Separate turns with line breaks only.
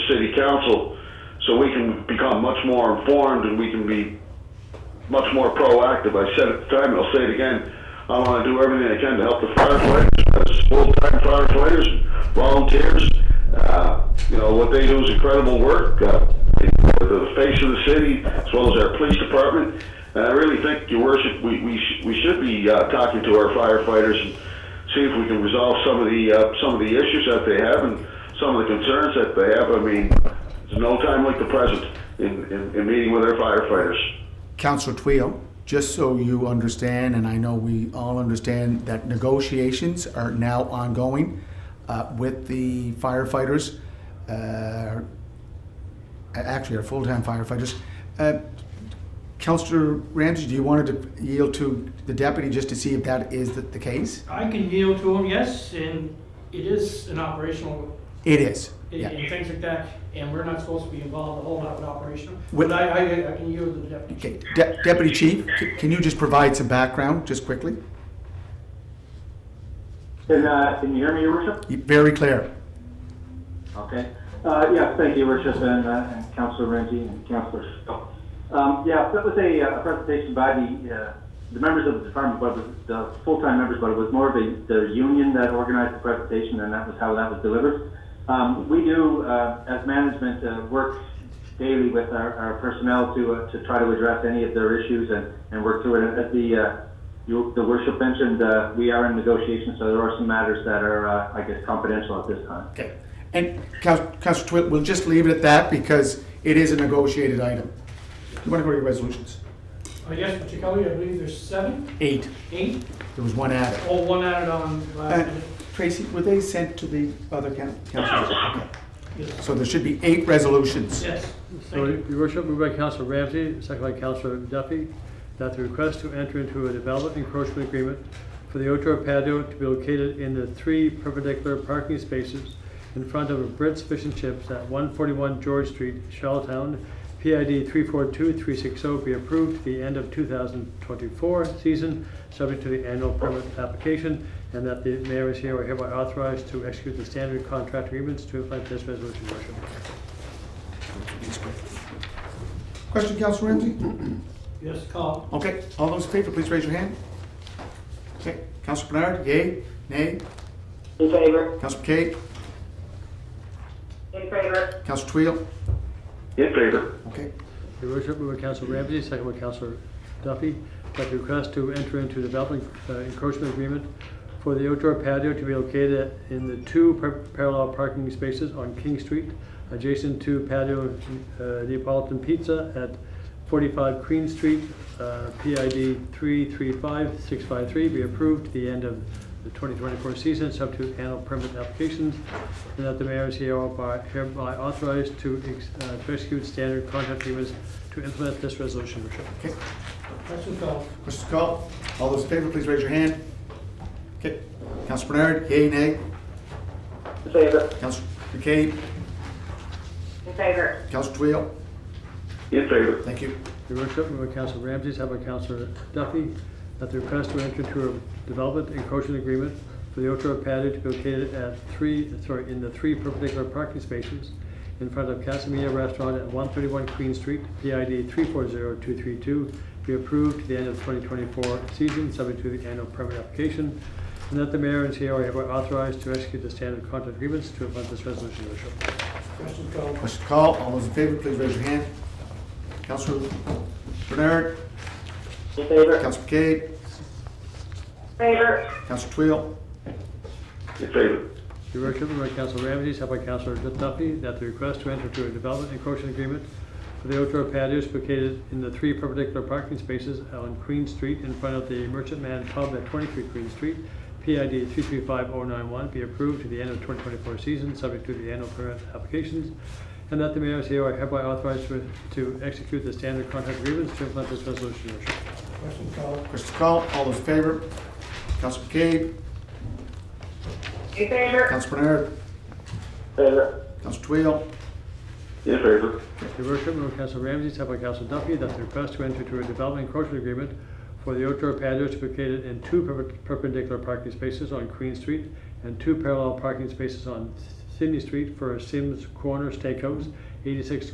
city council, so we can become much more informed and we can be much more proactive. I said at the time, and I'll say it again, I want to do everything I can to help the firefighters, as full-time firefighters, volunteers. Uh, You know, what they do is incredible work, uh, they're the face of the city, as well as our police department. And I really think, your worship, we, we, sh- we should be uh, talking to our firefighters and see if we can resolve some of the, uh, some of the issues that they have and some of the concerns that they have. I mean, there's no time like the present in, in, in meeting with our firefighters.
Councilor Tweel, just so you understand, and I know we all understand, that negotiations are now ongoing uh, with the firefighters, uh, actually our full-time firefighters. Uh, Councilor Ramsey, do you want to yield to the deputy just to see if that is the- the case?
I can yield to them, yes, and it is an operational,
It is,
and
yeah.
and things like that, and we're not supposed to be involved a whole lot with operational.
With-
But I, I, I can yield to the deputy.
Okay, De- Deputy Chief, c- can you just provide some background, just quickly?
Can, uh, can you hear me, Your Worship?
Very clear.
Okay. Uh, yes, thank you, Your Worship, and, uh, and Councilor Renzi and Councilor Schill. Um, yeah, that was a, uh, presentation by the, uh, the members of the department, but it was the full-time members, but it was more of a, the union that organized the presentation, and that was how that was delivered. Um, we do, uh, as management, uh, work daily with our, our personnel to, uh, to try to address any of their issues and, and work through it. As the, uh, you, the worship mentioned, uh, we are in negotiations, so there are some matters that are, uh, I guess, confidential at this time.
Okay, and Coun- Councillor Twill, we'll just leave it at that because it is a negotiated item. Do you want to go to your resolutions?
Uh, yes, Mr. Kelly, I believe there's seven,
Eight.
eight,
There was one added.
or one added on last
Uh,
minute.
Tracy, were they sent to the other coun- councils? Okay.
Yes.
So there should be eight resolutions.
Yes,
So,
thank you.
Your Worship, moved by Councilor Ramsey, second by Councilor Duffy, that the request to enter into a development encroachment agreement for the outdoor patio to be located in the three perpendicular parking spaces in front of Brits Fish and Chips at 141 George Street, Charlottetown, PID 342360, oh, be approved to the end of 2024 season, subject to the annual permit application, and that the mayor is here, are hereby authorized to execute the standard contract agreements to implement this resolution, Your Worship.
Question, Councillor Ramsey?
Yes, call.
Okay, all those in favor, please raise your hand. Okay, Councillor Bernard, yay, nay?
In favor?
Councillor Kate,
In favor.
Councillor Twill?
In favor.
Okay,
Your worship, moved by Council Ramsey, second by Council Duffy, that the request to enter into development uh, encroachment agreement for the outdoor patio to be located in the two par- parallel parking spaces on King Street, adjacent to patio uh, Neapolitan Pizza at 45 Queen Street, uh, PID 335653, be approved to the end of the 2024 season, subject to annual permit applications, and that the mayor is hereby hereby authorized to ex- uh, to execute standard contract agreements to implement this resolution, Your Worship.
okay.
Question call.
Questions called? All those in favor, please raise your hand. Okay, Councillor Bernard, yay, nay?
In favor.
Councillor Kate,
In favor.
Councillor Twill?
In favor.
Thank you.
Your worship, moved by Council Ramsey, second by Council Duffy, that the request to enter into a development encroachment agreement for the outdoor patio to be located at three, sorry, in the three perpendicular parking spaces in front of Casamia Restaurant at one thirty-one Queen Street, PID three four zero two three two, be approved to the end of twenty twenty-four season, subject to the annual permit application, and that the mayor and CEO are hereby authorized to execute the standard contract agreements to implement this resolution, your worship.
Question call.
Question call. All those in favor, please raise your hand. Councilor Bernard,
In favor.
Councilor Cade,
Favor.
Councilor Twill.
In favor.
Your worship, moved by Council Ramsey, second by Councilor Duffy, that the request to enter into a development encroachment agreement for the outdoor patios located in the three perpendicular parking spaces on Queen Street in front of the Merchantman Pub at twenty-three Queen Street, PID three-three-five-oh-nine-one, oh be approved to the end of twenty twenty-four season, subject to the annual permit applications, and that the mayor is hereby hereby authorized to, to execute the standard contract agreements to implement this resolution, your worship.
Question call.
Question call. All those in favor, Councilor Cade,
In favor.
Councilor Bernard,
Uh,
Favor.
Councilor Twill.
In favor.
Your worship, moved by Council Ramsey, second by Council Duffy, that the request to enter into a development encroachment agreement for the outdoor patio to be located in two perp- perpendicular parking spaces on Queen Street and two parallel parking spaces on Sydney Street for Sims Corner Steakhouse, eighty-six